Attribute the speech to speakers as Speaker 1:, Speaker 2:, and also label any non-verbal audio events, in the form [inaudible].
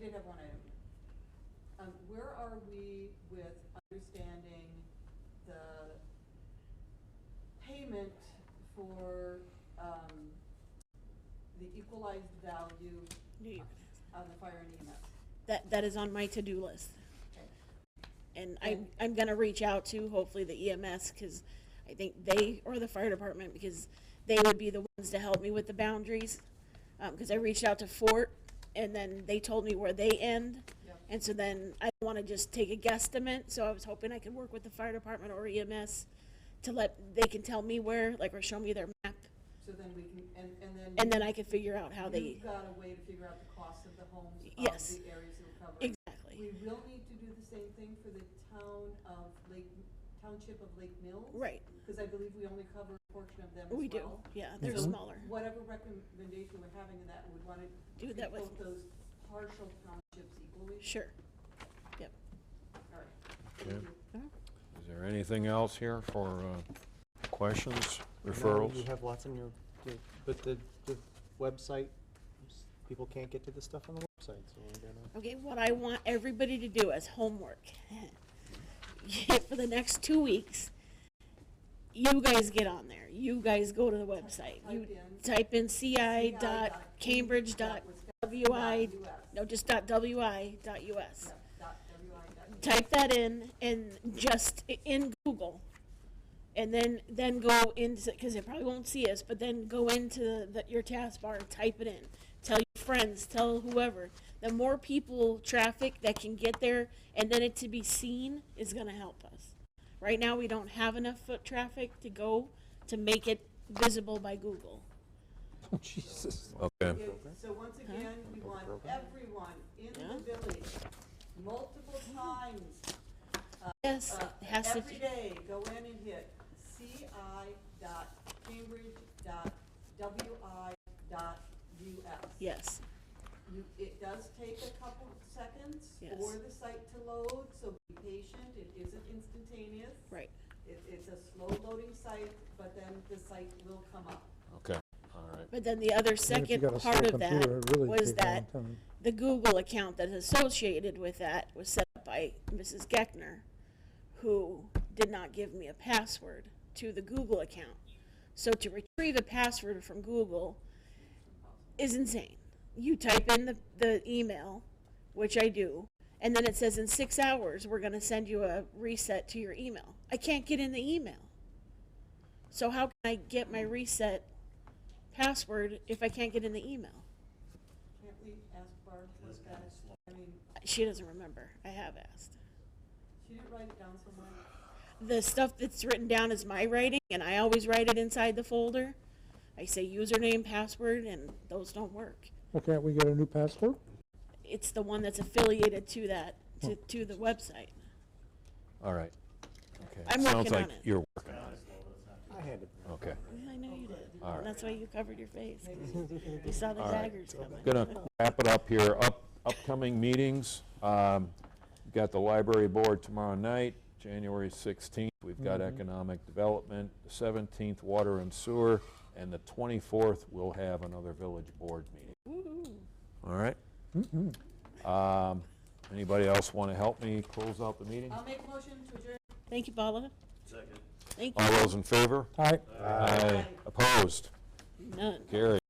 Speaker 1: did have one item. Um, where are we with understanding the payment for, um, the equalized value
Speaker 2: Knew you were gonna
Speaker 1: on the fire and EMS?
Speaker 2: That, that is on my to-do list.
Speaker 1: Okay.
Speaker 2: And I'm, I'm gonna reach out to hopefully the EMS, cause I think they, or the fire department, because they would be the ones to help me with the boundaries. Um, cause I reached out to Fort, and then they told me where they end.
Speaker 1: Yep.
Speaker 2: And so then I wanna just take a guesstimate, so I was hoping I could work with the fire department or EMS to let, they can tell me where, like, or show me their map,
Speaker 1: So then we can, and, and then.
Speaker 2: and then I can figure out how they,
Speaker 1: You've got a way to figure out the cost of the homes, of
Speaker 2: Yes.
Speaker 1: the areas that were covered. We
Speaker 2: exactly.
Speaker 1: will need to do the same thing for the town of Lake, township of Lake Mills.
Speaker 2: Right,
Speaker 1: Because I believe we only cover a portion of them as well.
Speaker 2: we do, yeah, they're
Speaker 1: So
Speaker 2: smaller.
Speaker 1: Whatever recommendation we're having in that, we'd want to.
Speaker 2: Do that
Speaker 1: treat
Speaker 2: with-
Speaker 1: Both those partial townships equally.
Speaker 2: Sure. Yep.
Speaker 1: All right.
Speaker 3: Okay.
Speaker 1: Thank you.
Speaker 3: Is there anything else here for uh, questions,
Speaker 4: I know You
Speaker 3: referrals?
Speaker 4: have lots in your, your- but the, the website, people can't get to the stuff on the website, so we're gonna.
Speaker 2: Okay, what I want everybody to do as homework [laughs] for the next two weeks, you guys get on there. You guys go to the website.
Speaker 1: Type
Speaker 2: You
Speaker 1: in-
Speaker 2: type in ci
Speaker 1: CI.Cambridge.wi.
Speaker 2: dot cambridge dot wi, no, just dot wi dot
Speaker 1: Dot
Speaker 2: us.
Speaker 1: wi dot us.
Speaker 2: Type that in and just i- in Google. And then, then go into, because they probably won't see us, but then go into the, your taskbar and type it in. Tell your friends, tell whoever. The more people, traffic that can get there, and then it to be seen is going to help us. Right now, we don't have enough foot traffic to go to make it visible by Google.
Speaker 4: Jesus.
Speaker 3: Okay,
Speaker 1: Yeah, So once again, we want everyone in
Speaker 2: Yeah.
Speaker 1: the village, multiple times,
Speaker 2: Yes,
Speaker 1: uh,
Speaker 2: it has to.
Speaker 1: every day, go in and hit ci dot cambridge dot wi dot us.
Speaker 2: Yes,
Speaker 1: You, it does take a couple seconds
Speaker 2: Yes.
Speaker 1: for the site to load, so be patient, it isn't instantaneous.
Speaker 2: right.
Speaker 1: It, it's a slow loading site, but then the site will come up.
Speaker 3: okay, all right.
Speaker 2: But then the other
Speaker 5: Even if you
Speaker 2: second
Speaker 5: got a slow
Speaker 2: part of
Speaker 5: computer,
Speaker 2: that
Speaker 5: it'd really
Speaker 2: was
Speaker 5: take a long
Speaker 2: that
Speaker 5: time.
Speaker 2: the Google account that's associated with that was set up by Mrs. Geckner, who did not give me a password to the Google account. So to retrieve a password from Google is insane. You type in the, the email, which I do, and then it says in six hours, we're going to send you a reset to your email. I can't get in the email. So how can I get my reset password if I can't get in the email?
Speaker 1: Can't we ask Barb what that, I mean,
Speaker 2: She doesn't remember. I have asked.
Speaker 1: she didn't write it down somewhere.
Speaker 2: The stuff that's written down is my writing, and I always write it inside the folder. I say username, password, and those don't work.
Speaker 5: Well, can't we get a new passport?
Speaker 2: It's the one that's affiliated to that, to, to the website.
Speaker 3: All right. Okay.
Speaker 2: I'm
Speaker 3: Sounds
Speaker 2: working on
Speaker 3: like
Speaker 2: it.
Speaker 3: you're working on it.
Speaker 4: I had it.
Speaker 3: Okay.
Speaker 2: I know you did.
Speaker 3: All right.
Speaker 2: And that's why you covered your face. 'cause You saw the daggers coming.
Speaker 3: Gonna wrap it up here. Up, upcoming meetings, um, we've got the library board tomorrow night, January 16th. We've got economic development, the 17th, water and sewer, and the 24th, we'll have another village board meeting.
Speaker 2: Woo-hoo.
Speaker 3: All right? Um, Anybody else want to help me close out the meeting?
Speaker 1: I'll make a motion to adjourn.
Speaker 2: Thank you, Paula. Second. Thank
Speaker 3: All
Speaker 2: you.
Speaker 3: those in favor?
Speaker 5: Aye.
Speaker 3: Aye. Opposed?
Speaker 2: None.
Speaker 3: Carried.